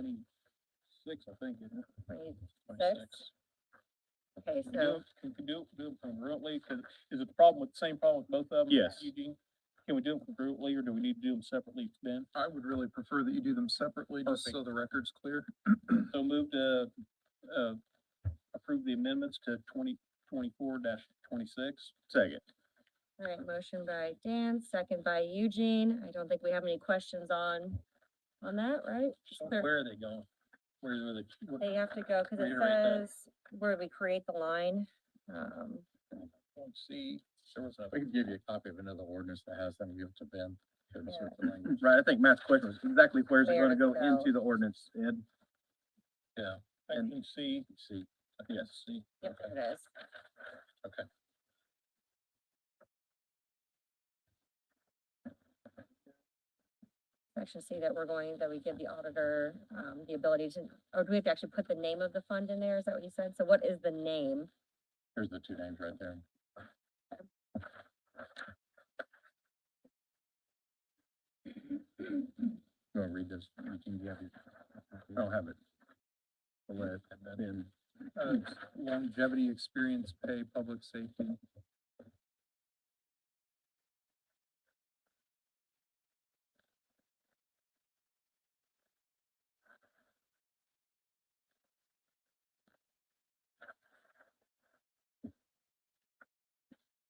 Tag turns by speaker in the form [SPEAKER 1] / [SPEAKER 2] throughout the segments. [SPEAKER 1] twenty-six, I think, isn't it?
[SPEAKER 2] Six? Okay,
[SPEAKER 1] Can we do
[SPEAKER 2] so,
[SPEAKER 3] Mm-hmm.
[SPEAKER 1] it- Can we do it, do it congruently, cause is it the problem with, same problem with both of them?
[SPEAKER 3] Yes.
[SPEAKER 1] Eugene? Can we do them congruently, or do we need to do them separately, Ben?
[SPEAKER 4] I would really prefer that you do them separately, just so the record's clear.
[SPEAKER 1] So move to, uh, approve the amendments to twenty, twenty-four dash twenty-six.
[SPEAKER 3] Second.
[SPEAKER 2] all right, motion by Dan, second by Eugene. I don't think we have any questions on, on that, right? Just clear-
[SPEAKER 1] Where are they going? Where's, where they? what-
[SPEAKER 2] They have to go, cause it
[SPEAKER 1] Reiterate that.
[SPEAKER 2] says where we create the line. Um,
[SPEAKER 1] Let's see, there was a.
[SPEAKER 4] We could give you a copy of another ordinance that has them, give it to Ben.
[SPEAKER 2] us Yeah. what
[SPEAKER 3] Right, I think Matt's question was exactly where's it
[SPEAKER 2] Where
[SPEAKER 3] gonna
[SPEAKER 2] to
[SPEAKER 3] go
[SPEAKER 2] go.
[SPEAKER 3] into the ordinance, Ed?
[SPEAKER 1] Thank you, C,
[SPEAKER 4] See,
[SPEAKER 1] I think it's C.
[SPEAKER 2] yep,
[SPEAKER 1] Okay.
[SPEAKER 2] it is. Section C that we're going, that we give the auditor, um, the ability to, or do we have to actually put the name of the fund in there? Is that what you said? So what is the name?
[SPEAKER 4] here's the two names right there. You wanna read this? You can have it. I don't have it. I'll let Ben. Uh, Longevity, experience, pay, public safety.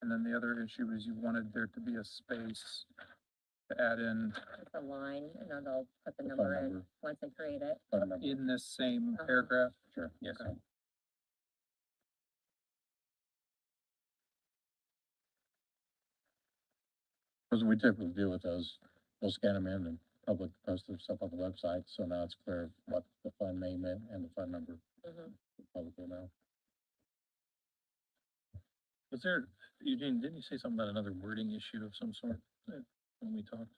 [SPEAKER 4] And then the other issue is you wanted there to be a space to add in,
[SPEAKER 2] It's a line, and then they'll put the number in once they create it.
[SPEAKER 4] in this same
[SPEAKER 2] Uh-huh.
[SPEAKER 4] paragraph.
[SPEAKER 3] Sure, yes.
[SPEAKER 4] Okay.
[SPEAKER 3] Because we typically do with those, we'll scan them in and public, post them stuff on the website, so now it's clear what the fund name is and the fund number
[SPEAKER 2] Mhm.
[SPEAKER 3] publicly now.
[SPEAKER 1] Was there, Eugene, didn't you say something about another wording issue of some sort uh, when we talked?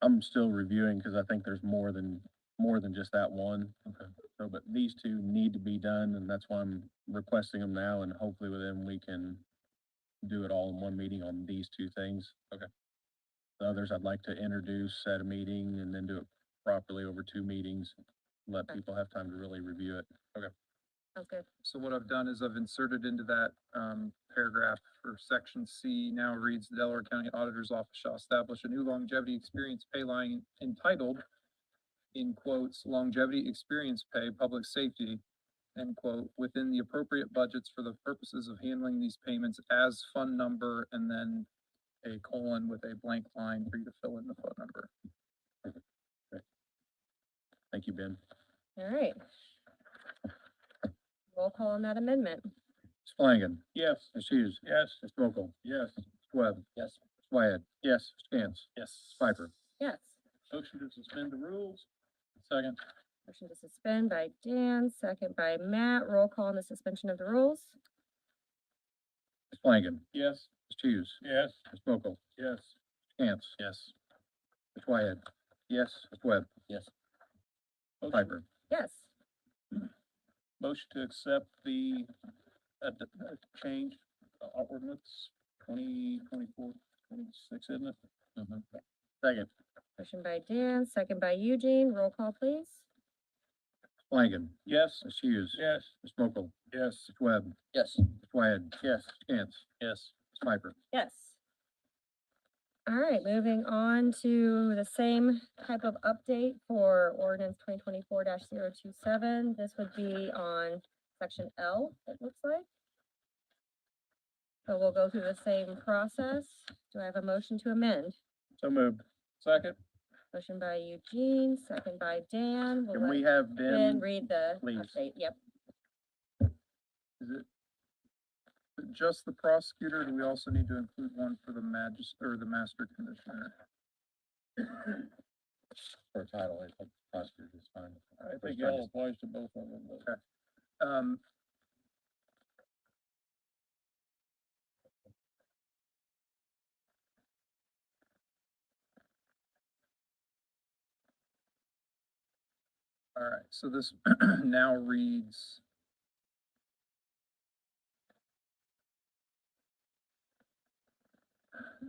[SPEAKER 3] I'm still reviewing because I think there's more than, more than just that one.
[SPEAKER 1] Okay.
[SPEAKER 3] So, but these two need to be done and that's why I'm requesting them now and hopefully within we can do it all in one meeting on these two things.
[SPEAKER 1] Okay.
[SPEAKER 3] The others I'd like to introduce at a meeting and then do it properly over two meetings. Let
[SPEAKER 2] Okay.
[SPEAKER 3] people have time to really review it.
[SPEAKER 2] Sounds good.
[SPEAKER 4] So what I've done is I've inserted into that um paragraph for section C now reads the Delaware County Auditor's Office shall establish a new longevity experience pay line entitled in quotes longevity experience pay public safety end quote within the appropriate budgets for the purposes of handling these payments as fund number and then a colon with a blank line for you to fill in the phone number.
[SPEAKER 3] Thank you, Ben.
[SPEAKER 2] All right. Roll call on that amendment.
[SPEAKER 3] Mr. Flanagan.
[SPEAKER 1] Yes.
[SPEAKER 3] Ms. Hughes.
[SPEAKER 1] Yes.
[SPEAKER 3] Mr. Mokel.
[SPEAKER 1] Yes.
[SPEAKER 3] Mr. Webb.
[SPEAKER 1] Yes.
[SPEAKER 3] Swyad.
[SPEAKER 1] Yes.
[SPEAKER 3] Mr. Cantz.
[SPEAKER 1] Yes.
[SPEAKER 3] Piper.
[SPEAKER 2] Yes.
[SPEAKER 1] Motion to suspend the rules. Second.
[SPEAKER 2] Motion to suspend by Dan, second by Matt. Roll call on the suspension of the rules.
[SPEAKER 3] Mr. Flanagan.
[SPEAKER 1] Yes.
[SPEAKER 3] Ms. Hughes.
[SPEAKER 1] Yes.
[SPEAKER 3] Mr. Mokel.
[SPEAKER 1] Yes.
[SPEAKER 3] Cantz.
[SPEAKER 1] Yes.
[SPEAKER 3] Mr. Wyatt. Yes. Mr. Webb.
[SPEAKER 1] Motion
[SPEAKER 3] Piper.
[SPEAKER 2] Yes.
[SPEAKER 1] Motion to accept the, uh, d- uh, change, uh, ordinance twenty twenty-four, twenty-six, isn't it?
[SPEAKER 3] Second.
[SPEAKER 2] Motion by Dan, second by Eugene. Roll call, please.
[SPEAKER 3] Flanagan.
[SPEAKER 1] Yes.
[SPEAKER 3] Ms. Hughes.
[SPEAKER 1] Yes.
[SPEAKER 3] Ms. Mokel.
[SPEAKER 1] Yes.
[SPEAKER 3] Mr. Webb.
[SPEAKER 1] Yes.
[SPEAKER 3] Mr. Wyatt.
[SPEAKER 1] Yes.
[SPEAKER 3] Chance.
[SPEAKER 1] Yes.
[SPEAKER 3] Ms. Piper.
[SPEAKER 2] Yes. All right, moving on to the same type of update for ordinance twenty twenty-four 27 This would be on section L, it looks like. So we'll go through the same process. Do I have a motion to amend?
[SPEAKER 3] So moved.
[SPEAKER 1] Second.
[SPEAKER 2] Motion by Eugene, second by Dan. We'll
[SPEAKER 3] Can we
[SPEAKER 2] let
[SPEAKER 3] have
[SPEAKER 2] Ben
[SPEAKER 3] Ben,
[SPEAKER 2] read the
[SPEAKER 3] please?
[SPEAKER 2] update. Yep,
[SPEAKER 4] Is it is it just the prosecutor, or do we also need to include one for the magis, or the master commissioner?
[SPEAKER 3] for title, I think prosecutor is fine.
[SPEAKER 1] I think it all applies to both of them, but.
[SPEAKER 4] Um. All right, so this now reads.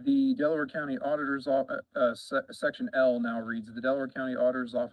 [SPEAKER 4] The Delaware County Auditor's, Off- uh, uh, Se- Section L now reads, the Delaware County Auditor's Office